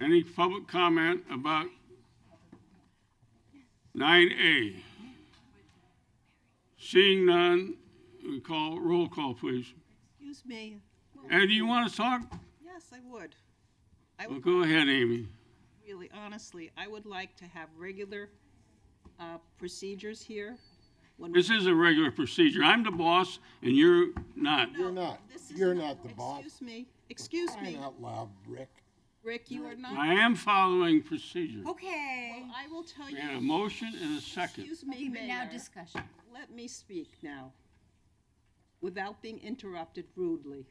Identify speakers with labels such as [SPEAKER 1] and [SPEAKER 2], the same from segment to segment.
[SPEAKER 1] Any public comment about nine A? Seeing none, we call, roll call, please.
[SPEAKER 2] Excuse me.
[SPEAKER 1] Ed, do you want to talk?
[SPEAKER 2] Yes, I would. I
[SPEAKER 1] Well,
[SPEAKER 2] would
[SPEAKER 1] go ahead, Amy.
[SPEAKER 2] really, honestly, I would like to have regular uh, procedures here. when we-
[SPEAKER 1] This is a regular procedure. I'm the boss and you're not.
[SPEAKER 2] No,
[SPEAKER 3] You're not.
[SPEAKER 2] this is
[SPEAKER 3] You're not the boss.
[SPEAKER 2] Excuse me, excuse
[SPEAKER 3] Crying
[SPEAKER 2] me,
[SPEAKER 3] out loud, Rick.
[SPEAKER 2] Rick, you are not.
[SPEAKER 1] I am following procedure.
[SPEAKER 4] Okay.
[SPEAKER 2] I will tell
[SPEAKER 1] We had a
[SPEAKER 2] you,
[SPEAKER 1] motion and a second.
[SPEAKER 2] excuse me,
[SPEAKER 4] But now
[SPEAKER 2] Mayor,
[SPEAKER 4] discussion.
[SPEAKER 2] let me speak now, without being interrupted rudely.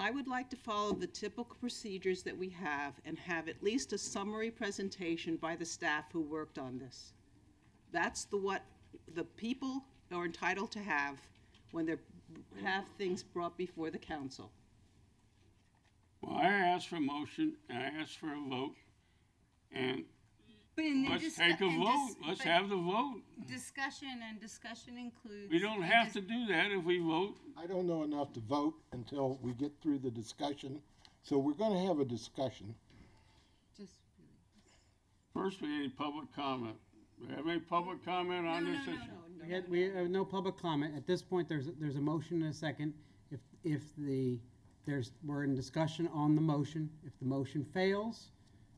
[SPEAKER 2] I would like to follow the typical procedures that we have and have at least a summary presentation by the staff who worked on this. That's the what the people are entitled to have when they have things brought before the council.
[SPEAKER 1] Well, I asked for a motion and I asked for a vote. And
[SPEAKER 4] But in the
[SPEAKER 1] let's
[SPEAKER 4] discu-
[SPEAKER 1] take a
[SPEAKER 4] and
[SPEAKER 1] vote.
[SPEAKER 4] dis-
[SPEAKER 1] Let's
[SPEAKER 4] but
[SPEAKER 1] have the vote.
[SPEAKER 4] Discussion and discussion includes.
[SPEAKER 1] We don't
[SPEAKER 4] and
[SPEAKER 1] have
[SPEAKER 4] dis-
[SPEAKER 1] to do that if we vote.
[SPEAKER 3] I don't know enough to vote until we get through the discussion, so we're gonna have a discussion.
[SPEAKER 4] just-
[SPEAKER 1] First, we need public comment. Do we have any public comment on this issue?
[SPEAKER 5] We had, we have no public comment. At this point, there's, there's a motion and a second. If, if the, there's, we're in discussion on the motion. If the motion fails,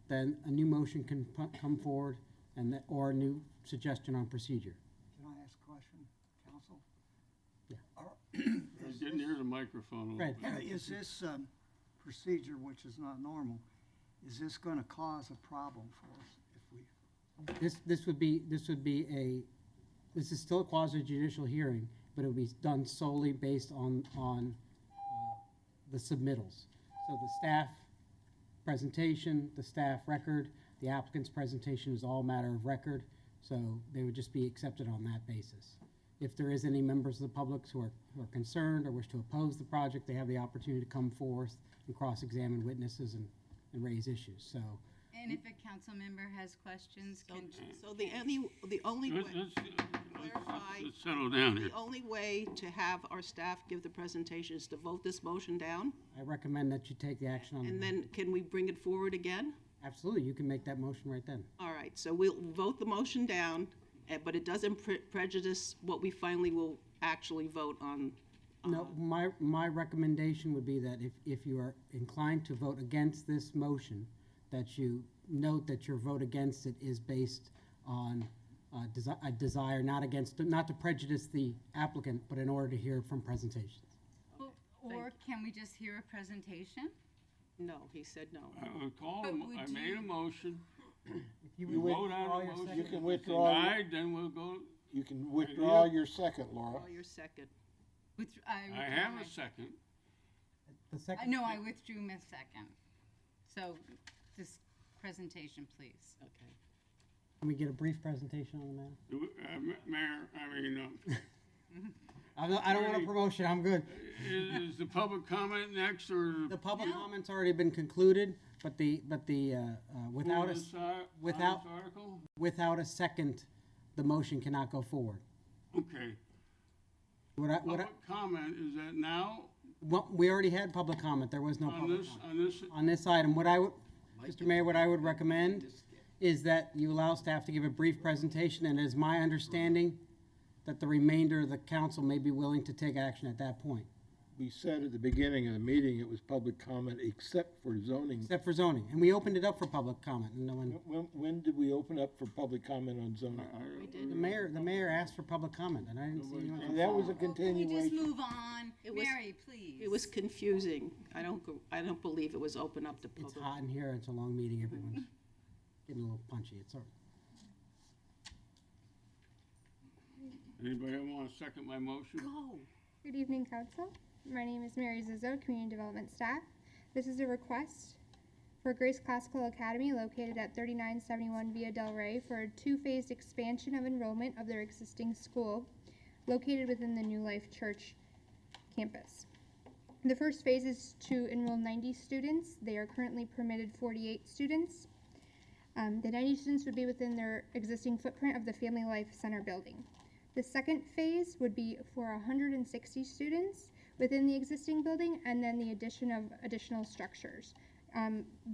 [SPEAKER 5] then a new motion can pu- come forward and, that- or a new suggestion on procedure.
[SPEAKER 6] Can I ask a question, counsel?
[SPEAKER 5] Yeah.
[SPEAKER 6] Are-
[SPEAKER 1] I
[SPEAKER 6] is
[SPEAKER 1] didn't hear the microphone.
[SPEAKER 5] Right.
[SPEAKER 6] this- Is this um, procedure, which is not normal, is this going to cause a problem for us if we,
[SPEAKER 5] This, this would be, this would be a, this is still a quasi judicial hearing, but it would be done solely based on, on uh, the submittals. So the staff presentation, the staff record, the applicant's presentation is all matter of record, so they would just be accepted on that basis. If there is any members of the public who are, who are concerned or wish to oppose the project, they have the opportunity to come forth and cross-examine witnesses and, and raise issues, so.
[SPEAKER 4] And if a council member has questions, can,
[SPEAKER 2] So the only, the only
[SPEAKER 1] Let's,
[SPEAKER 2] way.
[SPEAKER 1] let's,
[SPEAKER 2] Clarify.
[SPEAKER 1] let's settle down here.
[SPEAKER 2] The only way to have our staff give the presentation is to vote this motion down,
[SPEAKER 5] I recommend that you take the action on the.
[SPEAKER 2] and then can we bring it forward again?
[SPEAKER 5] Absolutely, you can make that motion right then.
[SPEAKER 2] All right, so we'll vote the motion down, eh, but it doesn't pre- prejudice what we finally will actually vote on. Um,
[SPEAKER 5] No, my, my recommendation would be that if, if you are inclined to vote against this motion, that you note that your vote against it is based on uh, desi- a desire, not against, not to prejudice the applicant, but in order to hear from presentations.
[SPEAKER 4] or can we just hear a presentation?
[SPEAKER 2] No, he said no.
[SPEAKER 1] I would call,
[SPEAKER 4] But
[SPEAKER 1] a mo-
[SPEAKER 4] would
[SPEAKER 1] I made a
[SPEAKER 4] you-
[SPEAKER 1] motion.
[SPEAKER 5] You
[SPEAKER 1] We vote on the
[SPEAKER 3] You
[SPEAKER 1] motion.
[SPEAKER 3] can
[SPEAKER 1] If
[SPEAKER 3] withdraw your-
[SPEAKER 1] Denied, then we'll go,
[SPEAKER 3] You can withdraw your second, Laura.
[SPEAKER 2] Oh, your second.
[SPEAKER 4] With,
[SPEAKER 1] I have a second.
[SPEAKER 5] The
[SPEAKER 4] I
[SPEAKER 5] second,
[SPEAKER 4] know, I withdrew my second. So this presentation, please.
[SPEAKER 2] Okay.
[SPEAKER 5] can we get a brief presentation on the matter?
[SPEAKER 1] Do we- uh, Ma- Mayor, I mean, uh,
[SPEAKER 5] I don't, I don't want a promotion, I'm good.
[SPEAKER 1] is, is the public comment next or?
[SPEAKER 5] The public comment's already been concluded, but the, but the, uh, uh, without a,
[SPEAKER 1] this ar- on this
[SPEAKER 5] without-
[SPEAKER 1] Article?
[SPEAKER 5] without a second, the motion cannot go forward.
[SPEAKER 1] Okay.
[SPEAKER 5] What I, what I,
[SPEAKER 1] Public comment, is that now
[SPEAKER 5] Well, we already had public comment, there was no
[SPEAKER 1] on
[SPEAKER 5] public
[SPEAKER 1] this,
[SPEAKER 5] comment.
[SPEAKER 1] on this?
[SPEAKER 5] On this item, what I would, Mr. Mayor, what I would recommend is that you allow staff to give a brief presentation, and it is my understanding that the remainder of the council may be willing to take action at that point,
[SPEAKER 3] We said at the beginning of the meeting, it was public comment except for zoning.
[SPEAKER 5] except for zoning, and we opened it up for public comment, and no one,
[SPEAKER 3] When, when did we open up for public comment on zoning?
[SPEAKER 1] Uh-uh.
[SPEAKER 5] the mayor, the mayor asked for public comment, and I didn't see anyone.
[SPEAKER 3] And that was a
[SPEAKER 4] Oh, Can we just
[SPEAKER 3] continuation.
[SPEAKER 4] move on?
[SPEAKER 2] was-
[SPEAKER 4] Mary, please.
[SPEAKER 2] It was confusing. I don't, go- I don't believe it was open up to
[SPEAKER 5] It's
[SPEAKER 2] public.
[SPEAKER 5] hot in here, it's a long meeting, everyone's getting a little punchy, it's all,
[SPEAKER 1] Anybody want to second my motion?
[SPEAKER 7] Good evening, Council. My name is Mary Zizzo, Community Development Staff. This is a request for Grace Classical Academy located at 3971 Via Del Rey for a two-phased expansion of enrollment of their existing school located within the New Life Church campus. The first phase is to enroll 90 students. They are currently permitted 48 students. Um, the 90 students would be within their existing footprint of the Family Life Center building. The second phase would be for 160 students within the existing building and then the addition of additional structures. Um,